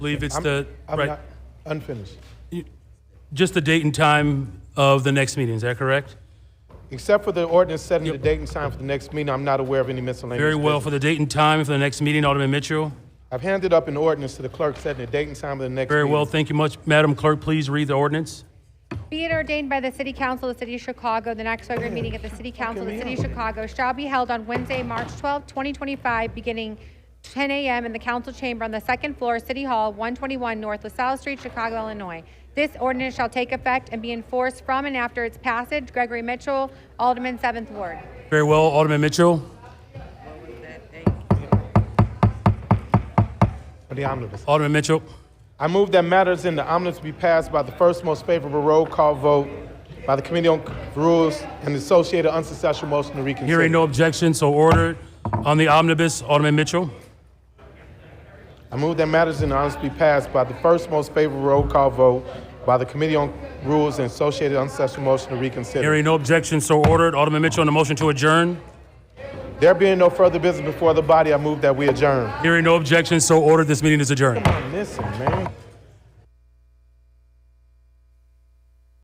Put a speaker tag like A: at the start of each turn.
A: believe it's
B: I'm-
A: the,
B: I'm
A: right,
B: not- Unfinished.
A: just the date and time of the next meeting, is that correct?
B: Except for the ordinance setting the date and time for the next meeting, I'm not aware of any miscellaneous.
A: Very well,
B: business.
A: for the date and time for the next meeting, Alderman Mitchell.
B: I've handed up an ordinance to the clerk setting the date and time of the next meeting.
A: Very well, thank you much. Madam Clerk, please read the ordinance.
C: Be it ordained by the City Council of the City of Chicago, the next regular meeting of the City Council of the City of Chicago shall be held on Wednesday, March 12, 2025, beginning 10 a.m. in the council chamber on the second floor, of City Hall, 121 North LaSalle Street, Chicago, Illinois. This ordinance shall take effect and be enforced from and after its passage. Gregory Mitchell, Alderman, 7th Ward.
A: Very well, Alderman Mitchell.
B: For the omnibus.
A: Alderman Mitchell.
B: I move that matters in the omnibus be passed by the first most favorable roll call vote by the Committee on Rules and the associated unsuccessful motion to reconsider.
A: Hearing no objection, so ordered. On the omnibus, Alderman Mitchell.
B: I move that matters in the omnibus be passed by the first most favorable roll call vote by the Committee on Rules and associated unsuccessful motion to reconsider.
A: Hearing no objection, so ordered. Alderman Mitchell on the motion to adjourn.
B: There being no further business before the body, I move that we adjourn.
A: Hearing no objection, so ordered. This meeting is adjourned.
B: Come on, listen, man.